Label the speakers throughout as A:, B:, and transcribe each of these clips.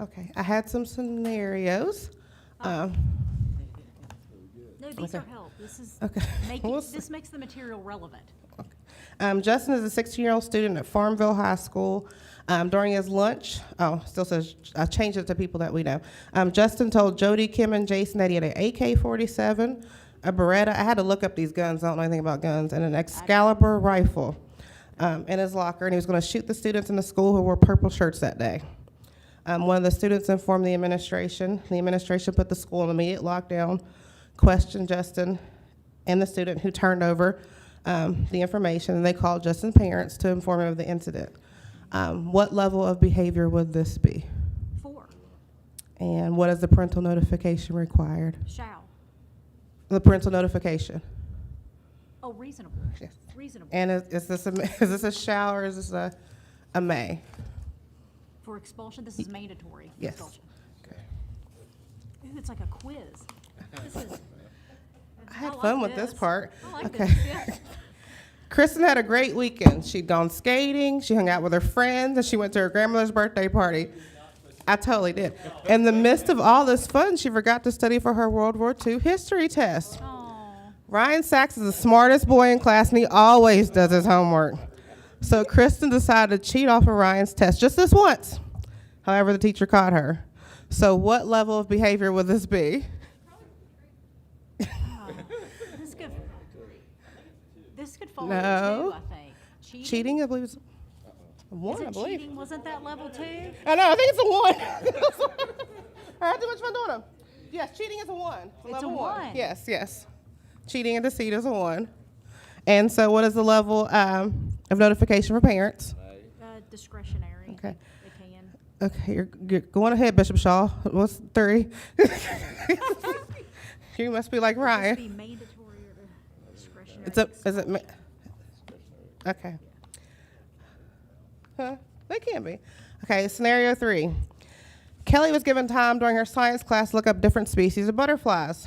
A: Okay, I had some scenarios.
B: Oh.
A: Um,
B: No, these
A: Okay.
B: are help. This is,
A: Okay.
B: make
A: We'll
B: it-
A: see.
B: this makes the material relevant.
A: Um, Justin is a 16-year-old student at Farmville High School. Um, during his lunch, oh, still says, I changed it to people that we know. Um, Justin told Jody, Kim, and Jason that he had an AK-47, a Beretta, I had to look up these guns, I don't know anything about guns, and an Excalibur rifle um, in his locker, and he was going to shoot the students in the school who wore purple shirts that day. Um, one of the students informed the administration. The administration put the school in immediate lockdown, questioned Justin and the student who turned over um, the information. And they called Justin's parents to inform him of the incident. Um, what level of behavior would this be?
B: Four,
A: And what is the parental notification required?
B: shall.
A: The parental notification.
B: Oh, reasonable,
A: Yes.
B: reasonable,
A: And is, is this a is this a shall or is this a a may?
B: for expulsion, this is mandatory.
A: Yes.
B: expulsion.
A: Okay.
B: Ooh, it's like a quiz. This is,
A: I had
B: like
A: fun with this
B: this.
A: part.
B: I like
A: Okay.
B: this, yeah.
A: Kristen had a great weekend. She'd gone skating, she hung out with her friends, and she went to her grandmother's birthday party. I totally did. In the midst of all this fun, she forgot to study for her World War II history test.
B: oh,
A: Ryan Sachs is the smartest boy in class, and he always does his homework. So Kristen decided to cheat off of Ryan's test just this once. However, the teacher caught her. So, what level of behavior would this be?
B: this could, this could fall
A: No.
B: into two, I think.
A: Cheating, I believe, is one. I
B: Isn't
A: believe.
B: cheating, wasn't that level two?
A: I know. I think it's a one. I had too much fun doing them. Yes, cheating is a one. It's
B: a
A: level
B: one.
A: Yes, yes. Cheating and deceit is a one. And so, what is the level um, of notification for parents?
B: Uh, discretionary.
A: Okay.
B: They can.
A: Okay, you're, you're going ahead, Bishop Shaw. What's three? you must be like
B: This
A: Ryan.
B: be mandatory or discretionary.
A: It's a. Is it? ma- Okay. Huh? They can be. Okay. Scenario three. Kelly was given time during her science class to look up different species of butterflies.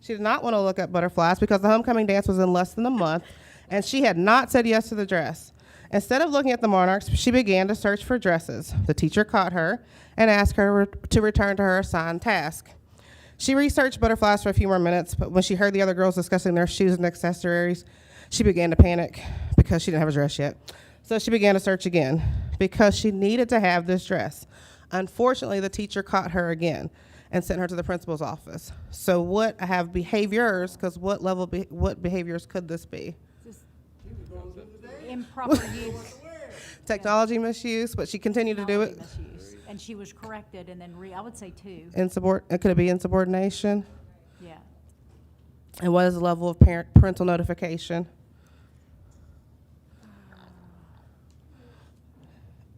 A: She did not want to look up butterflies because the homecoming dance was in less than a month, and she had not said yes to the dress. Instead of looking at the monarchs, she began to search for dresses. The teacher caught her and asked her to return to her assigned task. She researched butterflies for a few more minutes, but when she heard the other girls discussing their shoes and accessories, she began to panic because she didn't have a dress yet. So she began to search again because she needed to have this dress. Unfortunately, the teacher caught her again and sent her to the principal's office. So what I have behaviors because what level be, what behaviors could this be?
B: Improper use.
A: Technology misuse, but she continued to do it.
B: technology misuse. And she was corrected and then re, I would say two,
A: Insubord- could it be insubordination?
B: yeah.
A: And what is the level of parent parental notification?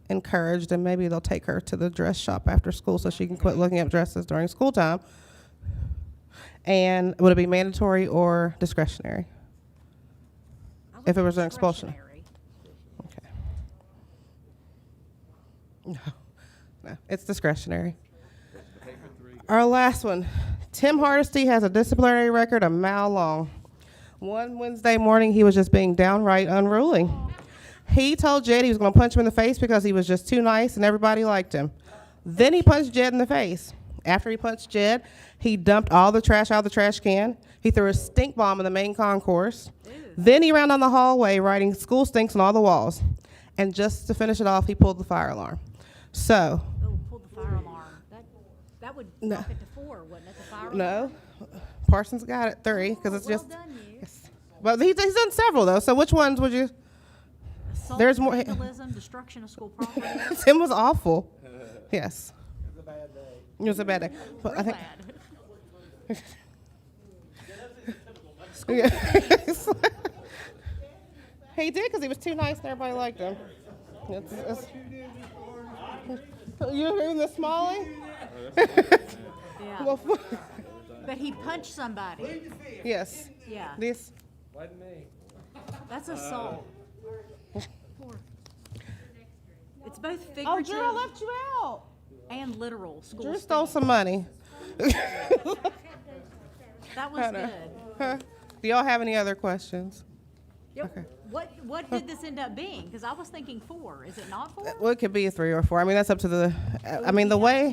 A: Encouraged, and maybe they'll take her to the dress shop after school so she can quit looking up dresses during school time. And would it be mandatory or discretionary?
B: I
A: If it
B: would
A: was an
B: say
A: expulsion.
B: discretionary.
A: Okay. No, no, it's discretionary. Our last one. Tim Hardesty has a disciplinary record a mile long. One Wednesday morning, he was just being downright unruly. He told Jed he was going to punch him in the face because he was just too nice and everybody liked him. Then he punched Jed in the face. After he punched Jed, he dumped all the trash out of the trash can. He threw a stink bomb in the main concourse. Then he ran down the hallway writing school stinks on all the walls. And just to finish it off, he pulled the fire alarm. So,
B: Oh, pulled the fire alarm. That, that would
A: No.
B: bump it to four, wouldn't it, the fire alarm?
A: no, Parsons got it three because it's
B: Well
A: just.
B: done, you.
A: Yes. But he's, he's done several though. So which ones would you?
B: Assault,
A: There's more-
B: Vandalism, destruction of school property.
A: Tim was awful. Yes. It was a bad day. It was a bad day. But I
B: Real
A: think.
B: bad.
A: he did because he was too nice and everybody liked him. It's- it's- you agree with Miss Smalley?
B: Yeah,
A: Well,
B: but he punched somebody.
A: yes.
B: Yeah,
A: This.
B: that's assault. Four. It's both
A: Uh, Oh, Drew, I
B: figurative
A: left you out.
B: and literal school.
A: Drew
B: stinks.
A: stole some money.
B: That was
A: know.
B: good.
A: Huh? Do y'all have any other questions?
B: Yep.
A: Okay.
B: What, what did this end up being? Because I was thinking four. Is it not four?
A: Well, it could be a three or four. I mean, that's up to the. I mean, the way